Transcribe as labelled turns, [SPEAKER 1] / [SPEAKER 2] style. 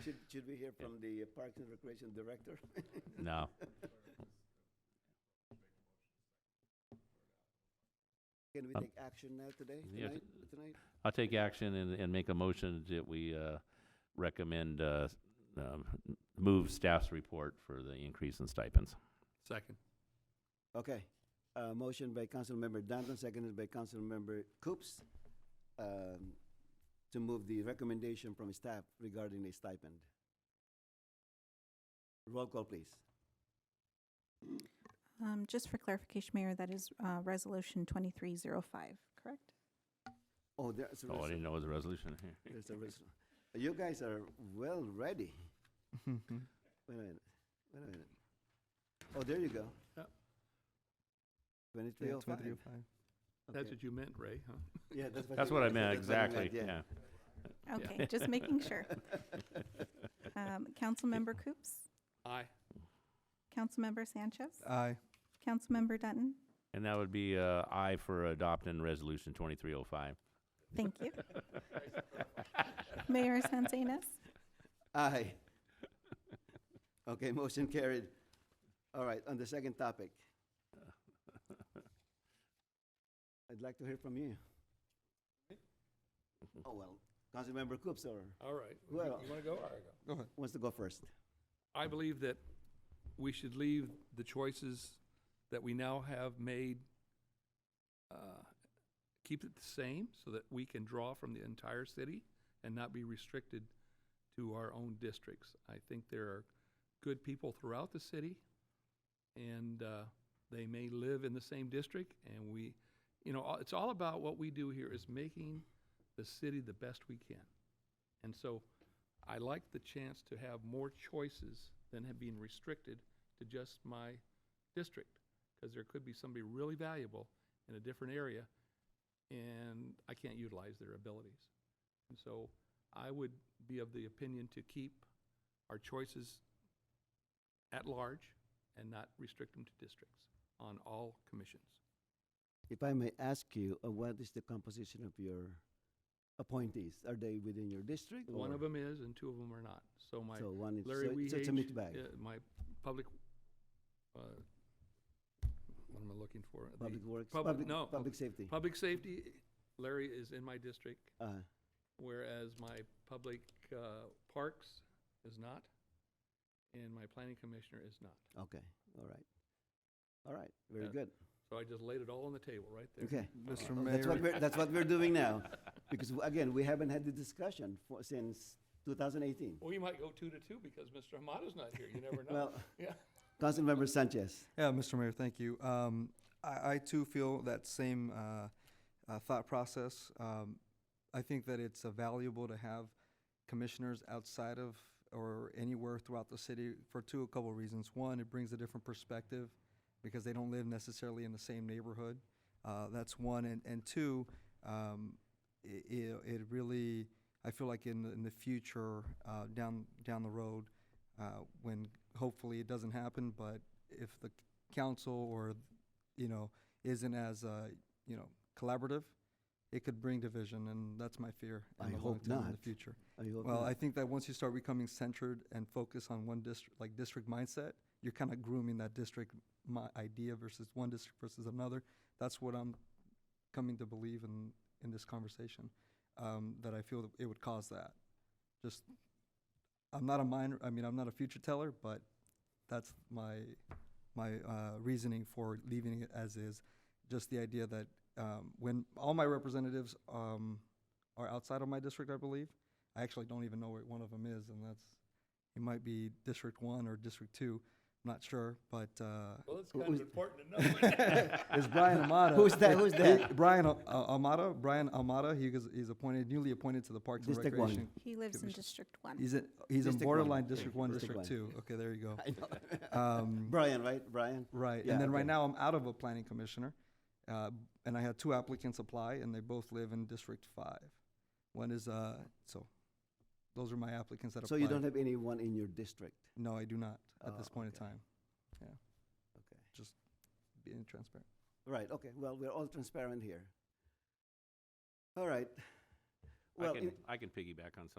[SPEAKER 1] Should, should we hear from the uh, Parks and Recreation Director?
[SPEAKER 2] No.
[SPEAKER 1] Can we
[SPEAKER 2] Um,
[SPEAKER 1] take action now today,
[SPEAKER 2] yeah,
[SPEAKER 1] tonight, tonight?
[SPEAKER 2] I'll take action and, and make a motion that we, uh, recommend, uh, s- um, move staff's report for the increase in stipends.
[SPEAKER 3] Second.
[SPEAKER 1] Okay, uh, motion by Councilmember Danton, seconded by Councilmember Coops, um, to move the recommendation from staff regarding the stipend. Roll call, please.
[SPEAKER 4] Um, just for clarification, Mayor, that is, uh, resolution twenty-three zero five, correct?
[SPEAKER 1] Oh, there's a
[SPEAKER 2] Oh, I
[SPEAKER 1] resol-
[SPEAKER 2] didn't know it was a resolution.
[SPEAKER 1] there's a resol- You guys are well ready. Wait a minute, wait a minute. Oh, there you go.
[SPEAKER 3] Yep.
[SPEAKER 1] Twenty-three oh five.
[SPEAKER 3] That's what you meant, Ray, huh?
[SPEAKER 1] Yeah, that's what.
[SPEAKER 2] That's
[SPEAKER 1] you-
[SPEAKER 2] what I meant,
[SPEAKER 1] that's what you
[SPEAKER 2] exactly, yeah.
[SPEAKER 4] Okay, just making sure. Um, Councilmember Coops,
[SPEAKER 3] Aye.
[SPEAKER 4] Councilmember Sanchez,
[SPEAKER 5] Aye.
[SPEAKER 4] Councilmember Dutton,
[SPEAKER 2] And that would be, uh, I for adopting resolution twenty-three oh five.
[SPEAKER 4] thank you. Mayor Sanzinez,
[SPEAKER 1] Aye. Okay, motion carried. All right, on the second topic. I'd like to hear from you.
[SPEAKER 2] Mm-hmm.
[SPEAKER 1] Oh, well, Councilmember Coops or
[SPEAKER 3] All right.
[SPEAKER 1] Who
[SPEAKER 3] You-
[SPEAKER 1] else?
[SPEAKER 3] You want to go? All right, go.
[SPEAKER 5] Go ahead.
[SPEAKER 1] wants to go first?
[SPEAKER 3] I believe that we should leave the choices that we now have made, uh, keep it the same so that we can draw from the entire city and not be restricted to our own districts. I think there are good people throughout the city and uh, they may live in the same district and we, you know, all- it's all about what we do here is making the city the best we can. And so I like the chance to have more choices than have been restricted to just my district, because there could be somebody really valuable in a different area, and I can't utilize their abilities. And so I would be of the opinion to keep our choices at large and not restrict them to districts on all commissions.
[SPEAKER 1] If I may ask you, uh, what is the composition of your appointees? Are they within your district?
[SPEAKER 3] One
[SPEAKER 1] or-
[SPEAKER 3] of them is, and two of them are not. So my
[SPEAKER 1] So one, is- so
[SPEAKER 3] Larry
[SPEAKER 1] it's so it's a
[SPEAKER 3] Wehage,
[SPEAKER 1] mixed bag,
[SPEAKER 3] uh, My public, uh, what am I looking for? The
[SPEAKER 1] public works,
[SPEAKER 3] public-
[SPEAKER 1] public,
[SPEAKER 3] no,
[SPEAKER 1] public safety.
[SPEAKER 3] Public safety, Larry is in my district,
[SPEAKER 1] Uh,
[SPEAKER 3] whereas my public uh, parks is not, and my planning commissioner is not.
[SPEAKER 1] Okay, all right. All right, very
[SPEAKER 3] Yeah.
[SPEAKER 1] good.
[SPEAKER 3] So I just laid it all on the table right there.
[SPEAKER 1] Okay.
[SPEAKER 5] Mr.
[SPEAKER 1] Well, That's what
[SPEAKER 5] Mayor.
[SPEAKER 1] we're, that's what we're doing now, because w- again, we haven't had the discussion for, since 2018.
[SPEAKER 3] Well, you might go two to two because Mr. Hamada's not here. You never know.
[SPEAKER 1] Well,
[SPEAKER 3] Yeah.
[SPEAKER 1] Councilmember Sanchez,
[SPEAKER 5] Yeah, Mr. Mayor, thank you. Um, I, I too feel that same uh, uh, thought process. Um, I think that it's uh, valuable to have commissioners outside of or anywhere throughout the city for two a couple of reasons. One, it brings a different perspective because they don't live necessarily in the same neighborhood. Uh, that's one, and and two, um, it, it, it really I feel like in the, in the future uh, down down the road uh, when hopefully it doesn't happen, but if the council or you know isn't as uh, you know collaborative, it could bring division, and that's my fear. in
[SPEAKER 1] I
[SPEAKER 5] the long
[SPEAKER 1] hope
[SPEAKER 5] term In the
[SPEAKER 1] not.
[SPEAKER 5] future.
[SPEAKER 1] I hope
[SPEAKER 5] Well,
[SPEAKER 1] not-
[SPEAKER 5] I think that once you start becoming centered and focus on one district, like district mindset, you're kind of grooming that district my idea versus one district versus another. That's what I'm coming to believe in in this conversation. Um, that I feel that it would cause that. Just, I'm not a minor. I mean, I'm not a future teller, but that's my my uh, reasoning for leaving it as is. Just the idea that um, when all my representatives um, are outside of my district, I believe. I actually don't even know where one of them is, and that's it might be District One or District Two. I'm not sure, but uh,
[SPEAKER 3] Well, it's
[SPEAKER 1] Who-
[SPEAKER 3] kind of
[SPEAKER 1] who's-
[SPEAKER 3] important to know.
[SPEAKER 5] it's Brian Amata.
[SPEAKER 1] Who's that- who's that?
[SPEAKER 5] He- Brian uh, Amata. Brian Amata. He is, he's appointed, newly appointed to the Parks and
[SPEAKER 1] District one.
[SPEAKER 5] Recreation.
[SPEAKER 4] he lives in
[SPEAKER 5] Commission.
[SPEAKER 4] District One.
[SPEAKER 5] He's in he's
[SPEAKER 1] District one.
[SPEAKER 5] in borderline District One,
[SPEAKER 1] District
[SPEAKER 5] District, Two. Okay, there you go. Um,
[SPEAKER 1] Brian, right, Brian?
[SPEAKER 5] right,
[SPEAKER 1] Yeah,
[SPEAKER 5] and then
[SPEAKER 1] okay.
[SPEAKER 5] right now I'm out of a planning commissioner, uh, and I had two applicants apply, and they both live in District Five. One is uh, so. Those are my applicants that
[SPEAKER 1] So
[SPEAKER 5] applied.
[SPEAKER 1] you don't have anyone in your district?
[SPEAKER 5] No, I do not
[SPEAKER 1] Oh,
[SPEAKER 5] at this point
[SPEAKER 1] okay.
[SPEAKER 5] in time. Yeah.
[SPEAKER 1] Okay.
[SPEAKER 5] Just being transparent.
[SPEAKER 1] Right, okay, well, we're all transparent here. All right.
[SPEAKER 2] I
[SPEAKER 1] Well,
[SPEAKER 2] can,
[SPEAKER 1] in-
[SPEAKER 2] I can piggyback on